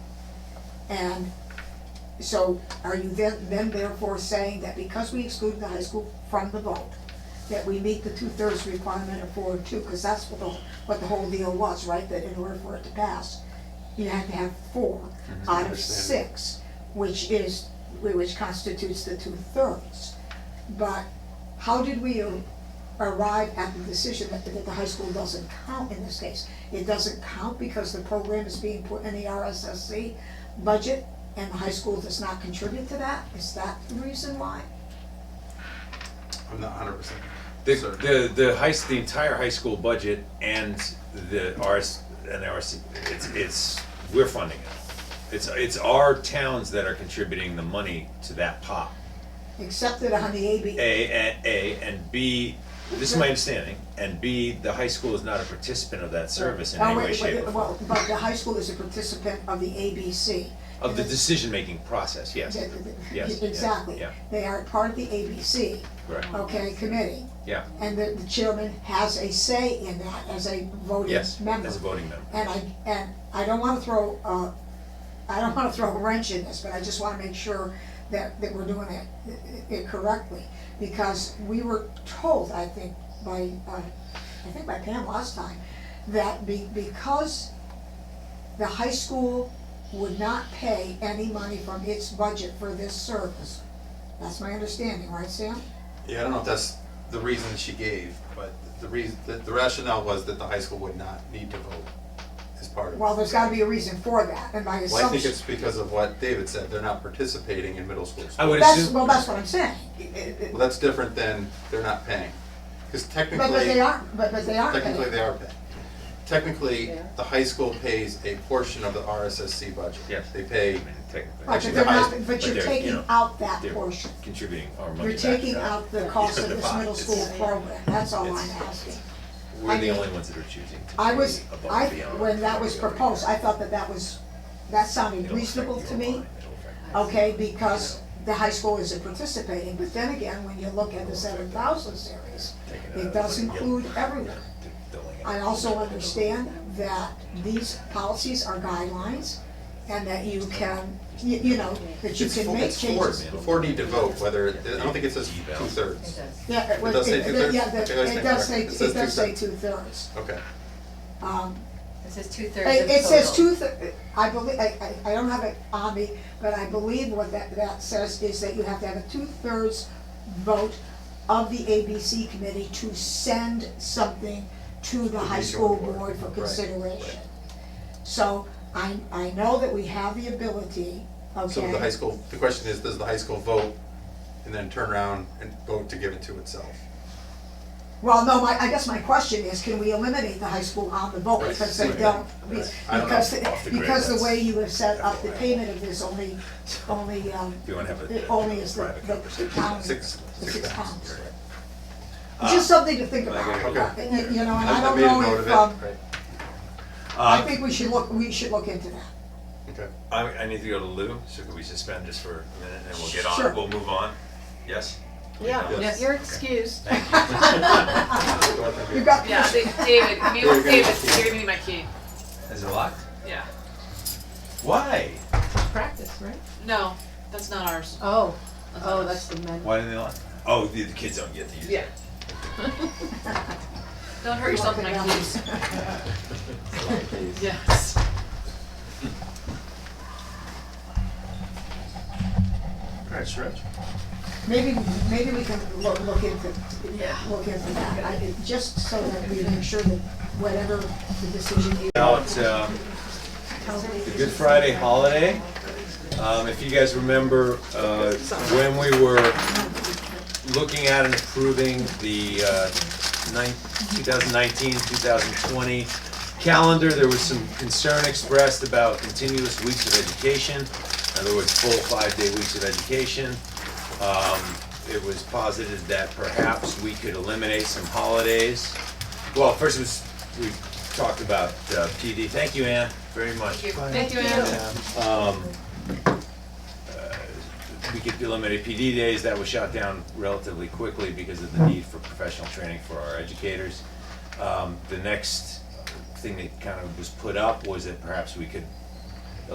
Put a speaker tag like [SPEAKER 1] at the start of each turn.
[SPEAKER 1] And so are you then, then therefore saying that because we excluded the high school from the vote, that we meet the two-thirds requirement of four and two, because that's what the, what the whole deal was, right? That in order for it to pass, you had to have four out of
[SPEAKER 2] Understand.
[SPEAKER 1] six, which is, which constitutes the two-thirds. But how did we arrive at the decision that, that the high school doesn't count in this case? It doesn't count because the program is being put in the RSSC budget and the high school does not contribute to that? Is that the reason why?
[SPEAKER 2] I'm not hundred percent.
[SPEAKER 3] The,
[SPEAKER 2] certain.
[SPEAKER 3] the, the high, s- the entire high school budget and the RS, and the RC, it's, it's, we're funding it. It's, it's our towns that are contributing the money to that pot.
[SPEAKER 1] Except that on the AB,
[SPEAKER 3] A, and, A, and B, this is my understanding, and B, the high school is not a participant of that service in
[SPEAKER 1] Oh,
[SPEAKER 3] any
[SPEAKER 1] wait,
[SPEAKER 3] way,
[SPEAKER 1] wait,
[SPEAKER 3] shape, or form.
[SPEAKER 1] Well, but the high school is a participant of the ABC.
[SPEAKER 3] Of the decision-making process, yes,
[SPEAKER 1] Th- th- th-
[SPEAKER 3] Yes, yes,
[SPEAKER 1] Exactly.
[SPEAKER 3] yeah.
[SPEAKER 1] They are part of the ABC,
[SPEAKER 3] correct,
[SPEAKER 1] okay, committee.
[SPEAKER 3] yeah,
[SPEAKER 1] And the, the chairman has a say in that as a voting
[SPEAKER 3] yes,
[SPEAKER 1] member.
[SPEAKER 3] as a voting member.
[SPEAKER 1] And I, and I don't wanna throw, uh, I don't wanna throw a wrench in this, but I just wanna make sure that, that we're doing it, it correctly. Because we were told, I think, by, uh, I think by Pam last time, that be, because the high school would not pay any money from its budget for this service. That's my understanding, right, Sam?
[SPEAKER 2] Yeah, I don't know if that's the reason she gave, but the reason, the the rationale was that the high school would not need to vote as part of it.
[SPEAKER 1] Well, there's gotta be a reason for that, and my
[SPEAKER 2] Well, I think
[SPEAKER 1] assumption,
[SPEAKER 2] it's because of what David said, they're not participating in middle school.
[SPEAKER 3] I
[SPEAKER 2] sports.
[SPEAKER 3] would
[SPEAKER 1] that's,
[SPEAKER 3] assume.
[SPEAKER 1] well, that's what I'm saying.
[SPEAKER 2] Well, that's different than they're not paying, because
[SPEAKER 1] But, but they
[SPEAKER 2] technically,
[SPEAKER 1] aren't, but, but they aren't paying.
[SPEAKER 2] technically they are paying. Technically,
[SPEAKER 4] They are.
[SPEAKER 2] the high school pays a portion of the RSSC budget.
[SPEAKER 3] Yes.
[SPEAKER 2] They pay,
[SPEAKER 3] I mean, technically.
[SPEAKER 1] Right, but
[SPEAKER 2] Actually, the
[SPEAKER 1] they're not,
[SPEAKER 2] highest-
[SPEAKER 1] but
[SPEAKER 3] but
[SPEAKER 1] you're
[SPEAKER 3] they're, you
[SPEAKER 1] taking
[SPEAKER 3] know,
[SPEAKER 1] out that
[SPEAKER 3] they're
[SPEAKER 1] portion.
[SPEAKER 3] Contributing our money
[SPEAKER 1] You're
[SPEAKER 3] back.
[SPEAKER 1] taking out the cost
[SPEAKER 3] Yeah,
[SPEAKER 1] of
[SPEAKER 3] the
[SPEAKER 1] this
[SPEAKER 3] pot.
[SPEAKER 1] middle
[SPEAKER 3] It's-
[SPEAKER 1] school
[SPEAKER 4] yeah.
[SPEAKER 1] program, that's all I'm
[SPEAKER 3] It's-
[SPEAKER 1] asking. I
[SPEAKER 3] We're the
[SPEAKER 1] mean,
[SPEAKER 3] only ones that are choosing to
[SPEAKER 1] I
[SPEAKER 3] be
[SPEAKER 1] was, I,
[SPEAKER 3] above and beyond
[SPEAKER 1] when that was
[SPEAKER 3] what we already
[SPEAKER 1] proposed,
[SPEAKER 3] are.
[SPEAKER 1] I thought that that was, that sounded
[SPEAKER 3] It'll affect
[SPEAKER 1] reasonable
[SPEAKER 3] your
[SPEAKER 1] to me,
[SPEAKER 3] line, it'll affect-
[SPEAKER 1] okay, because the high school isn't participating, but then again, when you look at the seven thousand series,
[SPEAKER 3] taking out
[SPEAKER 1] it
[SPEAKER 3] of
[SPEAKER 1] does
[SPEAKER 3] the- you'll-
[SPEAKER 1] include everyone.
[SPEAKER 3] the- the lane.
[SPEAKER 1] I also understand that these policies are guidelines and that you can, you, you know, that you
[SPEAKER 2] it's
[SPEAKER 1] can
[SPEAKER 2] four,
[SPEAKER 1] make
[SPEAKER 2] it's
[SPEAKER 1] changes.
[SPEAKER 2] four, the four need to vote, whether, it- I don't think it says
[SPEAKER 3] Yeah.
[SPEAKER 2] two-thirds.
[SPEAKER 1] Yeah, it was,
[SPEAKER 2] does say
[SPEAKER 1] it,
[SPEAKER 2] two-thirds?
[SPEAKER 1] yeah,
[SPEAKER 2] Okay, I
[SPEAKER 1] the-
[SPEAKER 2] was
[SPEAKER 1] it
[SPEAKER 2] thinking
[SPEAKER 1] does say,
[SPEAKER 2] that.
[SPEAKER 1] it
[SPEAKER 2] It says
[SPEAKER 1] does say
[SPEAKER 2] two-thirds.
[SPEAKER 1] two-thirds.
[SPEAKER 2] Okay.
[SPEAKER 1] Um,
[SPEAKER 4] It says two thirds
[SPEAKER 1] It, it says two, I believe, I, I, I don't have it on me, but I believe what that, that says is that you have to have a two-thirds vote of the ABC committee to send something to the high
[SPEAKER 2] regional
[SPEAKER 1] school
[SPEAKER 2] board.
[SPEAKER 1] board for
[SPEAKER 2] Right,
[SPEAKER 1] consideration. So I, I know that we have the ability, okay?
[SPEAKER 2] So the high school, the question is, does the high school vote and then turn around and vote to give it to itself?
[SPEAKER 1] Well, no, my, I guess my question is, can we eliminate the high school on the vote,
[SPEAKER 2] Right,
[SPEAKER 1] because they
[SPEAKER 2] right,
[SPEAKER 1] don't, be-
[SPEAKER 2] right. I don't know,
[SPEAKER 1] because, the-
[SPEAKER 3] off the grid,
[SPEAKER 1] because the
[SPEAKER 3] that's-
[SPEAKER 1] way you have set up the payment of this only, only, um,
[SPEAKER 3] If you wanna have a-
[SPEAKER 1] it only is the,
[SPEAKER 3] private
[SPEAKER 1] the the
[SPEAKER 3] conversation.
[SPEAKER 1] pound, the
[SPEAKER 2] Six-
[SPEAKER 1] six
[SPEAKER 2] six
[SPEAKER 1] pounds.
[SPEAKER 2] pounds. Uh,
[SPEAKER 1] It's Just something to think
[SPEAKER 3] I
[SPEAKER 1] about,
[SPEAKER 3] agree.
[SPEAKER 1] Uh,
[SPEAKER 2] Okay.
[SPEAKER 1] you you know, and
[SPEAKER 2] I-
[SPEAKER 1] I
[SPEAKER 2] I
[SPEAKER 1] don't
[SPEAKER 2] made a
[SPEAKER 1] know
[SPEAKER 2] note
[SPEAKER 1] if,
[SPEAKER 2] of it.
[SPEAKER 1] um,
[SPEAKER 2] Right.
[SPEAKER 1] I
[SPEAKER 3] Uh,
[SPEAKER 1] think we should look, we should look into that.
[SPEAKER 2] Okay.
[SPEAKER 3] I, I need to go to Lou, so could we suspend just for a minute and we'll get
[SPEAKER 1] Sure.
[SPEAKER 3] on, we'll move on? Yes?
[SPEAKER 2] Yes.
[SPEAKER 4] Yeah, you're excused.
[SPEAKER 1] You've got,
[SPEAKER 5] Yeah, Da- David, I mean,
[SPEAKER 2] David, give me the
[SPEAKER 5] David,
[SPEAKER 2] key.
[SPEAKER 5] you're gonna need my key,
[SPEAKER 3] Is it locked?
[SPEAKER 5] yeah.
[SPEAKER 3] Why?
[SPEAKER 4] Practice, right?
[SPEAKER 5] No, that's not ours.
[SPEAKER 4] Oh,
[SPEAKER 5] ours.
[SPEAKER 4] oh, that's the men.
[SPEAKER 3] Why didn't they lock? Oh, the, the kids don't get to use it.
[SPEAKER 5] Don't hurt yourself with my
[SPEAKER 1] Okay.
[SPEAKER 5] keys. Yes.
[SPEAKER 2] Alright, stretch.
[SPEAKER 1] maybe, maybe we can look, look into,
[SPEAKER 4] Yeah.
[SPEAKER 1] look into that, I, it- just so that we make sure that whatever the decision is.
[SPEAKER 3] About, um, the Good Friday holiday. Um, if you guys remember, uh, when we were looking at and approving the, uh, nine, 2019, 2020 calendar, there was some concern expressed about continuous weeks of education. In other words, full five-day weeks of education. Um, it was posited that perhaps we could eliminate some holidays. Well, first it was, we talked about uh, PD. Thank you, Ann, very much
[SPEAKER 5] Thank you, thank you, Ann.
[SPEAKER 3] um, uh, we could eliminate PD days, that was shot down relatively quickly because of the need for professional training for our educators. Um, the next thing that kind of was put up was that perhaps we could